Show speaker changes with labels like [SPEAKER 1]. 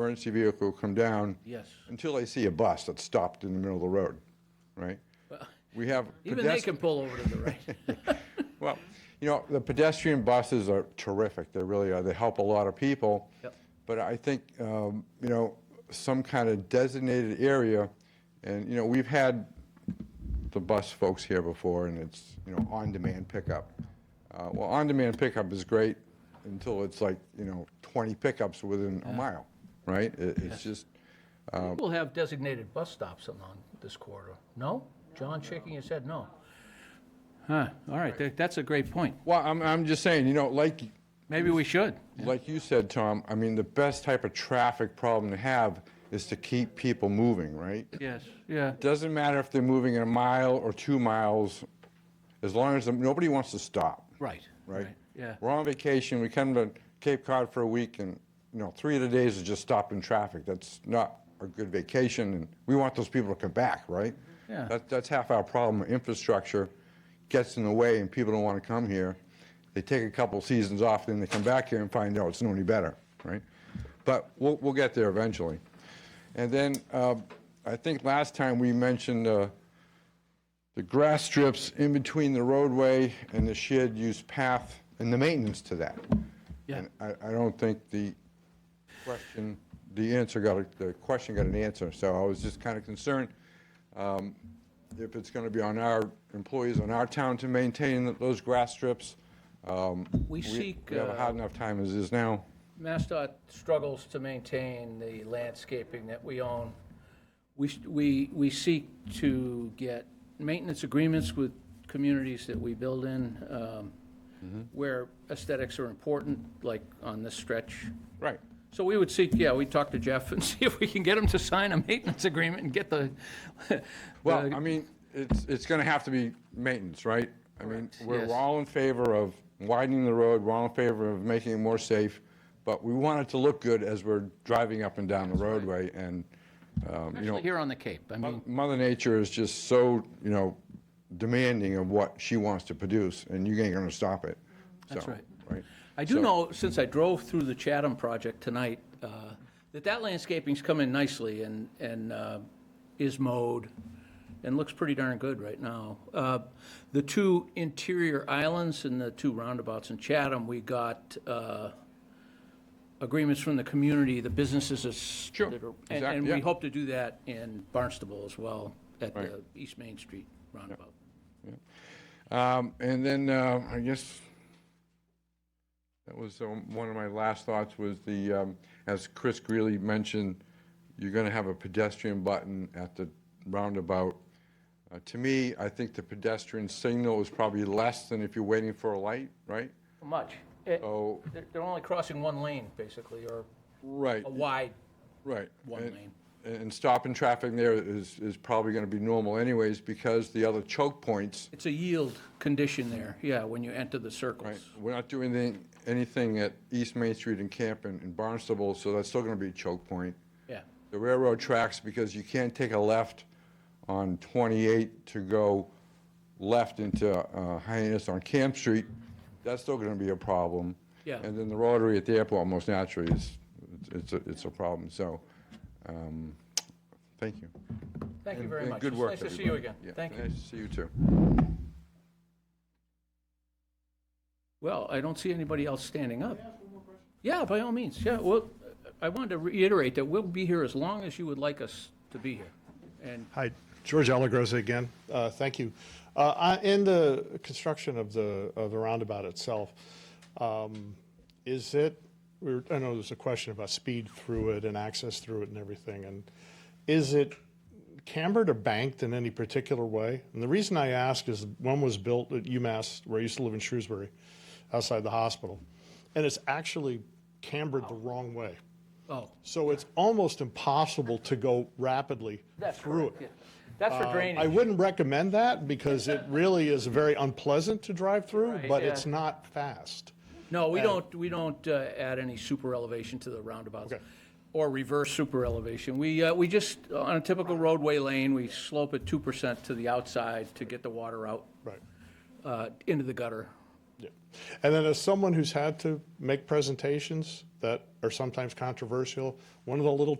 [SPEAKER 1] emergency vehicle come down
[SPEAKER 2] Yes.
[SPEAKER 1] until they see a bus that's stopped in the middle of the road, right? We have
[SPEAKER 2] Even they
[SPEAKER 1] pedestrian,
[SPEAKER 2] can pull over to the right.
[SPEAKER 1] well, you know, the pedestrian buses are terrific, they really are, they help a lot of people.
[SPEAKER 2] Yep.
[SPEAKER 1] But I think, um, you know, some kind of designated area, and, you know, we've had the bus folks here before, and it's, you know, on-demand pickup. Uh, Well, on-demand pickup is great until it's like, you know, 20 pickups within a mile, right? It- It's just,
[SPEAKER 2] We'll have designated bus stops along this corridor. No? John shaking his head, no.
[SPEAKER 3] Huh, all right, that- that's a great point.
[SPEAKER 1] well, I'm, I'm just saying, you know, like,
[SPEAKER 3] Maybe we should.
[SPEAKER 1] like you said, Tom, I mean, the best type of traffic problem to have is to keep people moving, right?
[SPEAKER 3] Yes, yeah,
[SPEAKER 1] Doesn't matter if they're moving a mile or two miles, as long as nobody wants to stop,
[SPEAKER 3] right.
[SPEAKER 1] right?
[SPEAKER 3] Yeah,
[SPEAKER 1] We're on vacation, we come to Cape Cod for a week, and, you know, three of the days is just stopped in traffic. That's not a good vacation, and we want those people to come back, right?
[SPEAKER 3] Yeah.
[SPEAKER 1] That, that's half our problem. Infrastructure gets in the way, and people don't want to come here. They take a couple seasons off, then they come back here and find out it's no any better, right? But we'll, we'll get there eventually. And then, uh, I think last time we mentioned, uh, the grass strips in between the roadway and the shared use path and the maintenance to that.
[SPEAKER 3] Yeah.
[SPEAKER 1] And I, I don't think the question, the answer got, a- the question got an answer, so I was just kind of concerned um, if it's going to be on our employees, on our town to maintain those grass strips. Um,
[SPEAKER 2] We seek,
[SPEAKER 1] We have a
[SPEAKER 2] uh,
[SPEAKER 1] hard enough time as is now.
[SPEAKER 2] MassDOT struggles to maintain the landscaping that we own. We, s- we, we seek to get maintenance agreements with communities that we build in, um,
[SPEAKER 1] Mm-hmm.
[SPEAKER 2] where aesthetics are important, like on this stretch.
[SPEAKER 1] Right.
[SPEAKER 2] So we would seek, yeah, we'd talk to Jeff and see if we can get him to sign a maintenance agreement and get the,
[SPEAKER 1] Well, I mean, it's, it's going to have to be maintenance, right? I mean, we're
[SPEAKER 2] yes.
[SPEAKER 1] we're all in favor of widening the road, we're all in favor of making it more safe, but we want it to look good as we're driving up and down the roadway, and, um, you
[SPEAKER 2] Especially
[SPEAKER 1] know,
[SPEAKER 2] here on the Cape, I mean,
[SPEAKER 1] Mother Nature is just so, you know, demanding of what she wants to produce, and you ain't going to stop it.
[SPEAKER 2] That's
[SPEAKER 1] So,
[SPEAKER 2] right.
[SPEAKER 1] Right.
[SPEAKER 2] I do know, since I drove through the Chatham project tonight, uh, that that landscaping's come in nicely and, and uh, is mowed and looks pretty darn good right now. Uh, The two interior islands and the two roundabouts in Chatham, we got uh, agreements from the community, the businesses is-
[SPEAKER 1] Sure,
[SPEAKER 2] that are- And
[SPEAKER 1] exact-
[SPEAKER 2] and we
[SPEAKER 1] yeah.
[SPEAKER 2] hope to do that in Barnstable as well, at the East Main Street roundabout.
[SPEAKER 1] Um, And then, uh, I guess, that was um, one of my last thoughts was the, um, as Chris Greeley mentioned, you're going to have a pedestrian button at the roundabout. Uh, To me, I think the pedestrian signal is probably less than if you're waiting for a light, right?
[SPEAKER 2] Much. Eh,
[SPEAKER 1] Oh,
[SPEAKER 2] They're they're only crossing one lane, basically, or
[SPEAKER 1] right,
[SPEAKER 2] a wide
[SPEAKER 1] right.
[SPEAKER 2] one
[SPEAKER 1] And-
[SPEAKER 2] lane.
[SPEAKER 1] And stopping traffic there is, is probably going to be normal anyways because the other choke points
[SPEAKER 2] It's a yield condition there, yeah, when you enter the
[SPEAKER 1] Right,
[SPEAKER 2] circles.
[SPEAKER 1] we're not doing anything, anything at East Main Street and Camp and and Barnstable, so that's still gonna be a choke point.
[SPEAKER 2] Yeah,
[SPEAKER 1] The railroad tracks, because you can't take a left on 28 to go left into uh, Hyannis on Camp Street, that's still gonna be a problem.
[SPEAKER 2] Yeah.
[SPEAKER 1] And then the rotary at the airport, most naturally, is, it's, a- it's a problem, so, um, thank you.
[SPEAKER 2] thank you
[SPEAKER 1] And-
[SPEAKER 2] very
[SPEAKER 1] and
[SPEAKER 2] much.
[SPEAKER 1] Good
[SPEAKER 2] It's
[SPEAKER 1] work,
[SPEAKER 2] Nice to see you
[SPEAKER 1] everybody.
[SPEAKER 2] again.
[SPEAKER 1] Yeah,
[SPEAKER 2] Thank you.
[SPEAKER 1] Nice to see you too.
[SPEAKER 2] Well, I don't see anybody else standing up. Yeah, by all means, yeah, well, I wanted to reiterate that we'll be here as long as you would like us to be here. And
[SPEAKER 4] Hi, George Alagrosa again. Uh, Thank you. Uh, I- In the construction of the, of the roundabout itself, um, is it, we were- I know there's a question about speed through it and access through it and everything, and is it cambered or banked in any particular way? And the reason I ask is one was built at UMass, where I used to live in Shrewsbury, outside the hospital, and it's actually cambered the wrong way.
[SPEAKER 2] Oh,
[SPEAKER 4] So it's almost impossible to go rapidly
[SPEAKER 2] that's
[SPEAKER 4] through it.
[SPEAKER 2] correct, yeah. That's for
[SPEAKER 4] Um, I
[SPEAKER 2] drainage.
[SPEAKER 4] wouldn't recommend that because it really is very unpleasant to drive through,
[SPEAKER 2] Right,
[SPEAKER 4] but
[SPEAKER 2] yeah.
[SPEAKER 4] it's not fast.
[SPEAKER 2] No, we don't, we don't uh, add any super elevation to the roundabouts.
[SPEAKER 4] Okay.
[SPEAKER 2] Or reverse super elevation. We, uh, we just, on a typical roadway lane, we slope it 2% to the outside to get the water out
[SPEAKER 4] Right.
[SPEAKER 2] uh, into the gutter.
[SPEAKER 4] Yeah. And then as someone who's had to make presentations that are sometimes controversial, one of the little